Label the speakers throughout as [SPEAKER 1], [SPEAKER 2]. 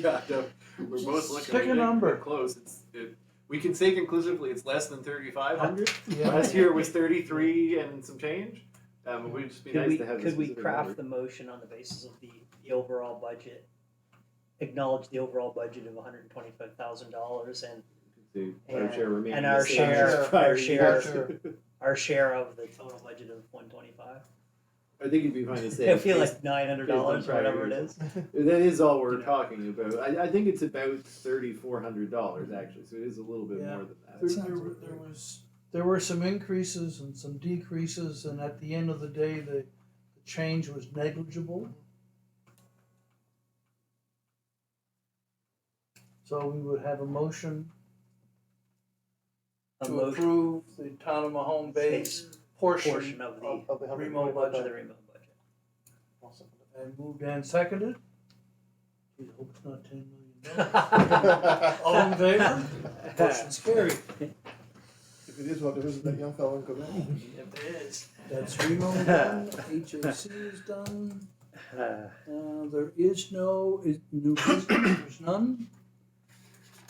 [SPEAKER 1] Yeah, no, we're both
[SPEAKER 2] Just
[SPEAKER 1] looking.
[SPEAKER 3] pick
[SPEAKER 1] we
[SPEAKER 3] a
[SPEAKER 1] think
[SPEAKER 3] number.
[SPEAKER 1] we're Close. It's, it, we can say conclusively it's less than thirty-five hundred.
[SPEAKER 3] Yeah.
[SPEAKER 1] Last year was thirty-three and some change. Um, it would just be
[SPEAKER 4] Could
[SPEAKER 1] nice
[SPEAKER 4] we,
[SPEAKER 1] to have. a
[SPEAKER 4] could we
[SPEAKER 1] specific
[SPEAKER 4] craft
[SPEAKER 1] number.
[SPEAKER 4] the motion on the basis of the, the overall budget? Acknowledge the overall budget of one hundred and twenty-five thousand dollars and,
[SPEAKER 5] The
[SPEAKER 4] and,
[SPEAKER 5] share remaining.
[SPEAKER 4] and
[SPEAKER 5] the
[SPEAKER 4] our
[SPEAKER 5] same
[SPEAKER 4] share,
[SPEAKER 5] as prior
[SPEAKER 4] our share,
[SPEAKER 5] years.
[SPEAKER 4] our share of the total budget of one twenty-five.
[SPEAKER 5] I think it'd be fine to say.
[SPEAKER 4] It'd be like nine hundred dollars,
[SPEAKER 5] based on prior
[SPEAKER 4] whatever it
[SPEAKER 5] years.
[SPEAKER 4] is.
[SPEAKER 5] That is all we're talking about. I, I think it's about thirty-four hundred dollars actually, so it is a little bit
[SPEAKER 3] Yeah.
[SPEAKER 5] more than
[SPEAKER 3] There,
[SPEAKER 5] that.
[SPEAKER 3] there, were- there was there were some increases and some decreases, and at the end of the day, the, the change was negligible. So we would have a motion
[SPEAKER 4] A
[SPEAKER 2] to
[SPEAKER 4] motion,
[SPEAKER 2] approve the town of Mahone Bay's
[SPEAKER 4] portion
[SPEAKER 2] portion
[SPEAKER 4] of
[SPEAKER 2] of
[SPEAKER 4] the-
[SPEAKER 2] the
[SPEAKER 3] hundred
[SPEAKER 2] remote
[SPEAKER 4] of the
[SPEAKER 2] budget.
[SPEAKER 4] remote budget.
[SPEAKER 3] and moved and seconded. We hope it's not ten million. dollars. All in favor? Motion's carried.
[SPEAKER 2] If it is, well, there isn't that young fellow in Quebec.
[SPEAKER 4] If it is.
[SPEAKER 3] That's oh Remo done. HAC is done. Uh, there is no is new business, there's none.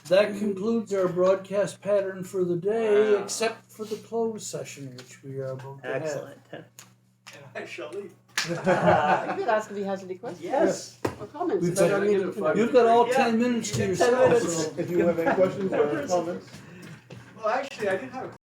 [SPEAKER 3] That concludes our broadcast pattern for the day,
[SPEAKER 4] Wow.
[SPEAKER 3] except for the closed session, which we are about to have.
[SPEAKER 4] Excellent.
[SPEAKER 1] And I shall leave.
[SPEAKER 4] Uh,
[SPEAKER 6] You could ask if he has any questions
[SPEAKER 4] Yes.
[SPEAKER 6] or comments
[SPEAKER 3] We've
[SPEAKER 6] about
[SPEAKER 3] got-
[SPEAKER 6] our meeting tonight.
[SPEAKER 3] You've got all
[SPEAKER 1] Yeah,
[SPEAKER 3] ten minutes to
[SPEAKER 1] you
[SPEAKER 3] yourself,
[SPEAKER 4] minutes.
[SPEAKER 3] so-
[SPEAKER 2] If you have any questions or comments.
[SPEAKER 1] Well, actually, I did have a